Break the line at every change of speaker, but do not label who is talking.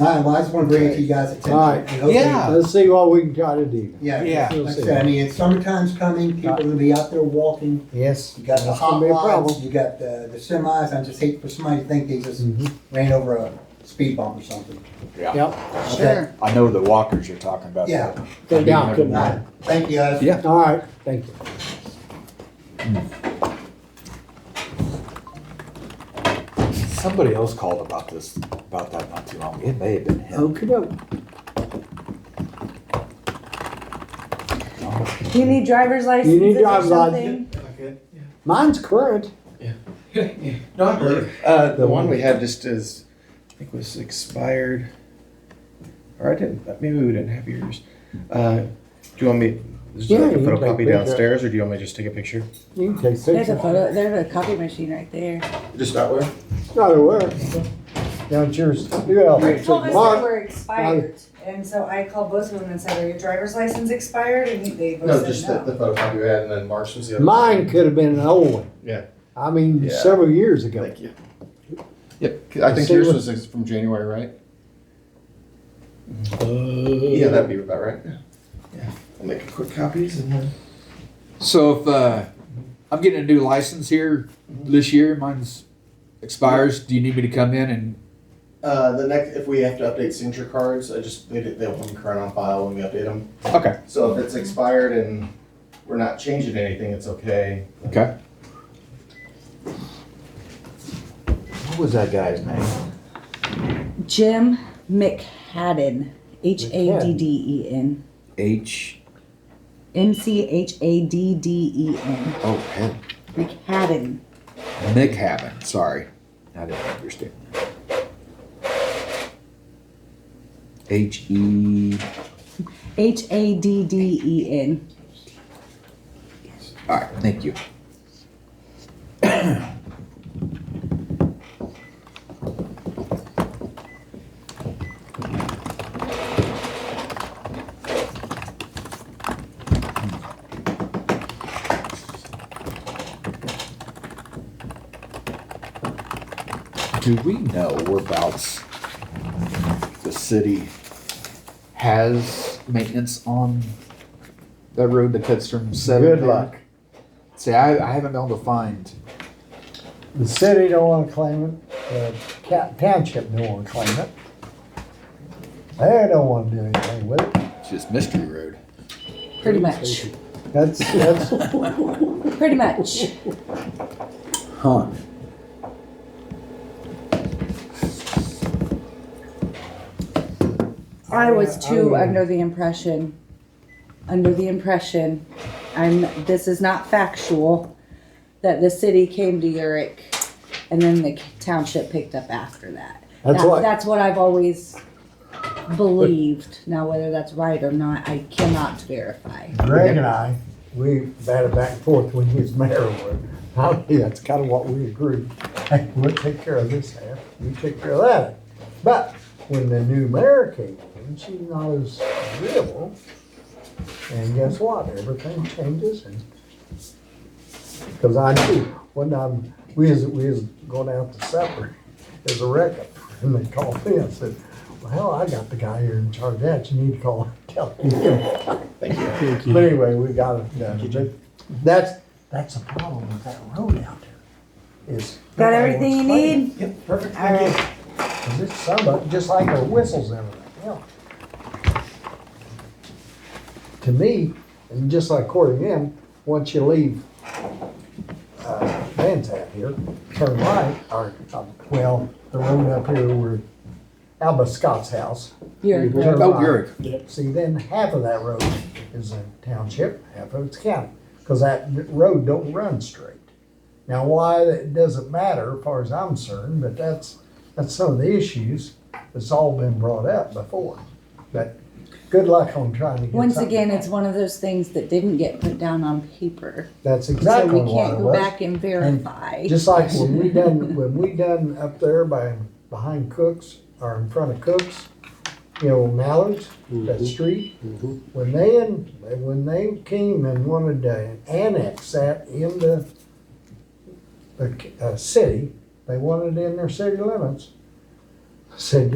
All right, well, I just wanna bring it to you guys' attention.
All right.
and hopefully-
Yeah.
Let's see what we can try to do.
Yeah,
Yeah.
like I said, I mean, it's summertime's coming, people are gonna be out there walking,
Yes.
you got the
That's
hot
gonna be a
rods,
problem.
you got the, the semis, I just hate for somebody to think they just
Mm-hmm.
ran over a speed bump or something.
Yep,
Okay.
I know the walkers you're talking about.
Yeah.
go down,
All
come
right,
on.
thank you guys.
Yeah.
All right, thank you.
Somebody else called about this, about that not too long. It may have been him.
Okay, doke.
You need driver's licenses or
driver's
something?
Mine's current.
Not her.
Uh,
Hmm.
the one we had just is, I think was expired. Or I didn't, maybe we didn't have yours. Uh, do you want me, is there like
Yeah,
a
you can take
photocopy
a picture.
downstairs or do you want me to just take a picture?
You can take
There's
pictures.
a photo, there's a copy machine right there.
Just that way?
Gotta work. Now, it's yours. Yeah.
You told us they
Mark,
were expired, and so I called both of them and said, are your driver's license expired? And they
No,
both
just
said
the,
no.
the photocopy we had and then Mark's was the other.
Mine could have been an old one.
Yeah.
I mean,
Yeah.
several years ago.
Thank you. Yep, I think
See
yours
what-
was from January, right?
Uh,
Yeah, that'd be about right. Yeah, I'll make a quick copies and then.
So if, uh, I'm getting a new license here this year, mine's expires, do you need me to come in and,
Uh, the next, if we have to update signature cards, I just, they, they'll be current on file when we update them.
okay,
So if it's expired and we're not changing anything, it's okay.
okay. What was that guy's name?
Jim McHadden, H A D D E N,
H,
M C H A D D E N,
oh, hell,
McHadden.
Nick Haven, sorry. I didn't understand. H E,
H A D D E N.
all right, thank you. Do we know whereabouts the city has maintenance on that road that cuts from seven?
Good
to-
luck.
See, I, I haven't been able to find.
The city don't wanna claim it, the ca- township don't wanna claim it. They don't wanna do anything with it.
It's just Mystery Road.
Pretty much.
That's, that's,
Pretty much.
Huh.
I
Yeah,
was
I
too
would.
under the impression, under the impression, I'm, this is not factual, that the city came to Uric and then the township picked up after that.
that's
That-
what,
That's what I've always believed. Now, whether that's right or not, I cannot verify.
Greg and I, we batted back and forth when he was mayor. I mean, that's kinda what we agreed. Hey, we'll take care of this half, you take care of that. But when the new mayor came in, she's not as agreeable. And guess what? Everything changes and, cause I knew, one time, we was, we was going out to supper, there's a wreck, and they called me, I said, well, I got the guy here in charge of that, you need to call, and tell him. Thank you. But anyway, we got it done, but that's, that's the problem with that road out there, is.
Got everything you
nobody wants to
need?
pay. Yep, perfect,
All right.
Cause it's some of, just like the whistles and everything, yeah. To me, and just like Corey in, once you leave, uh, Man's Hat here, turn right, or, uh, well, the road up here where Alba Scott's house.
Uric.
Turn
Oh,
right.
Uric.
See, then half of that road is a township, half of it's county, cause that road don't run straight. Now, why that doesn't matter, as far as I'm concerned, but that's, that's some of the issues that's all been brought up before. But good luck on trying to get
Once
something.
again, it's one of those things that didn't get put down on paper,
That's
so
exactly
we
what it
can't go
was.
back and verify.
Just like when we done, when we done up there by, behind Cooks, or in front of Cooks, you know, Mallards,
Mm-hmm.
that street. When they, in- when they came and wanted to annex that in the, the, uh, city, they wanted it in their city limits. I Said,